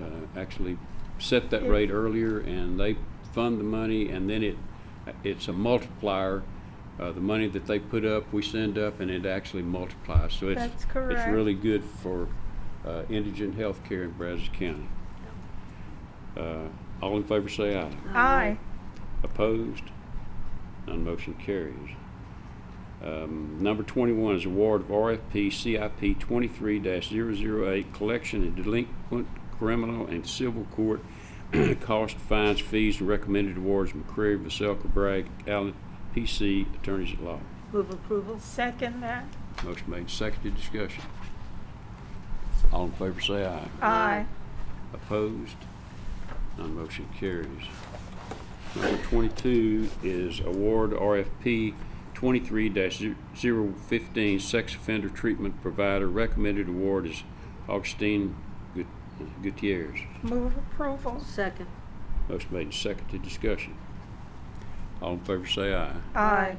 uh, actually set that rate earlier and they fund the money and then it, it's a multiplier. Uh, the money that they put up, we send up and it actually multiplies. So it's, That's it's correct. really good for, uh, indigent healthcare in Brazos County. Uh, all in favor say aye. Aye. Opposed? None motion carries. Um, Number 21 is award of RFP CIP 23-008 Collection and Delinquent Criminal and Civil Court Cost Fines Fees and Recommended Awards McCreary, Vasselka, Bragg, Allen, PC, Attorneys at Law. Move approval. Second that. Motion made, seconded, discussion. All in favor say aye. Aye. Opposed? None motion carries. Number 22 is award RFP 23-015 Sex Offender Treatment Provider. Recommended award is Augustine Gut- Gutierrez. Move approval. Second. Motion made and seconded. Discussion. All in favor say aye. Aye.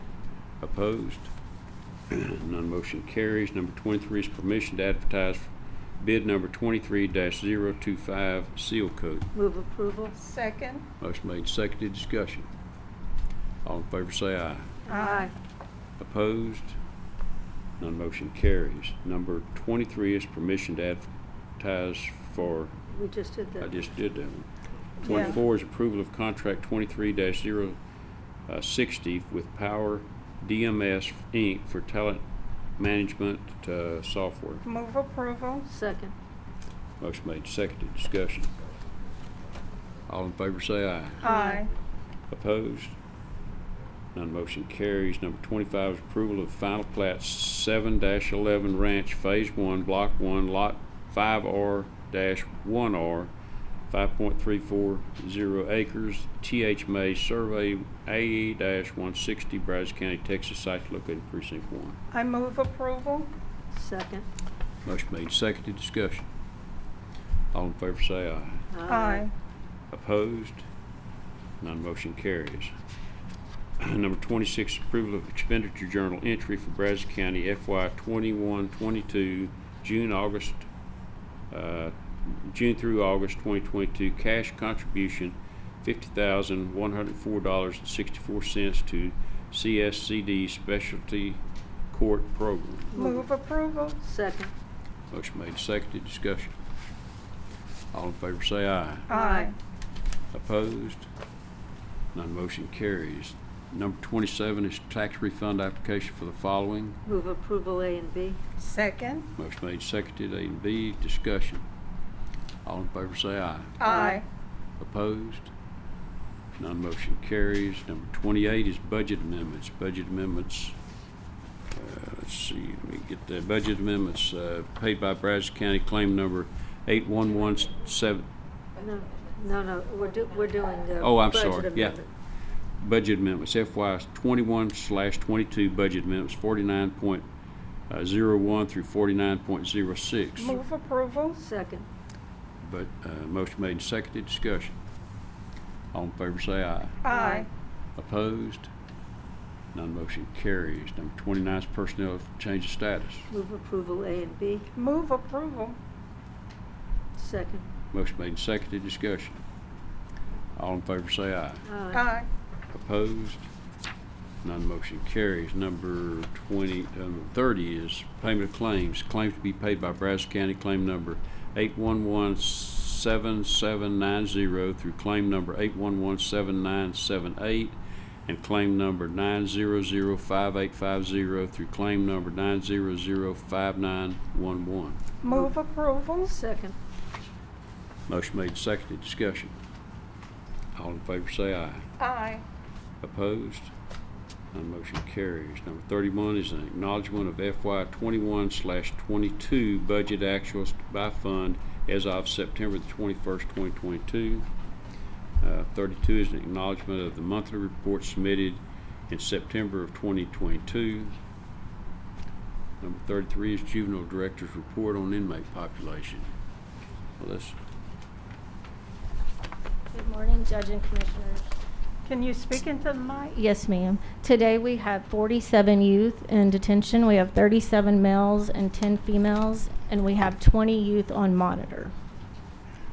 Opposed? None motion carries. Number 23 is permission to advertise bid number 23-025 Seal Coat. Move approval. Second. Motion made, seconded, discussion. All in favor say aye. Aye. Opposed? None motion carries. Number twenty-three is permission to advertise for, We just did I that. just did that one. Yeah. Twenty-four is approval of contract twenty-three 60 with Power DMS Inc. for talent management, uh, software. Move approval. Second. Motion made, seconded, discussion. All in favor say aye. Aye. Opposed? None motion carries. Number 25 is approval of final plat 7-11 Ranch Phase 1, Block 1, Lot 5R-1R, 5.340 acres, TH May Survey E A-160, Brazos County, Texas, site located in precinct 1. I move approval. Second. Motion made, seconded, discussion. All in favor say aye. Aye. Opposed? None motion carries. Number 26, approval of expenditure journal entry for Brazos County FY 21-22, June, August, uh, June through August 2022, cash contribution $50,104.64 to CSCD Specialty Court Program. Move approval. Second. Motion made, seconded, discussion. All in favor say aye. Aye. Opposed? None motion carries. Number 27 is tax refund application for the following. Move approval A and B. Second. Motion made, seconded, A and B, discussion. All in favor say aye. Aye. Opposed? None motion carries. Number 28 is budget amendments. Budget amendments, uh, let's see, let me get the budget amendments uh, paid by Brazos County claim number 8117, No, no, no, we're do, we're doing the. Oh, I'm budget sorry, yeah. amendment. budget amendments, FY twenty-one slash twenty-two budget amendments, forty-nine point uh, zero one through forty-nine point zero six. Move approval. Second. But, uh, motion made and seconded, discussion. All in favor say aye. Aye. Opposed? None motion carries. Number twenty-nine is personnel change of status. Move approval A and B. Move approval. Second. Motion made and seconded, discussion. All in favor say aye. Aye. Opposed? None motion carries. Number 20, um, 30 is payment of claims. Claims to be paid by Brazos County, claim number 8117790 through claim number 8117978, and claim number 9005850 through claim number 9005911. Move approval. Second. Motion made, seconded, discussion. All in favor say aye. Aye. Opposed? None motion carries. Number thirty-one is an acknowledgement of FY twenty-one slash twenty-two budget actuals by fund as of September the twenty-first, twenty twenty-two. Uh, thirty-two is an acknowledgement of the monthly report submitted in September of twenty twenty-two. Number thirty-three is juvenile director's report on inmate population. Well, that's, Good morning, Judge and Commissioners. Can you speak into the mic? Yes, ma'am. Today, we have 47 youth in detention. We have 37 males and 10 females, and we have 20 youth on monitor.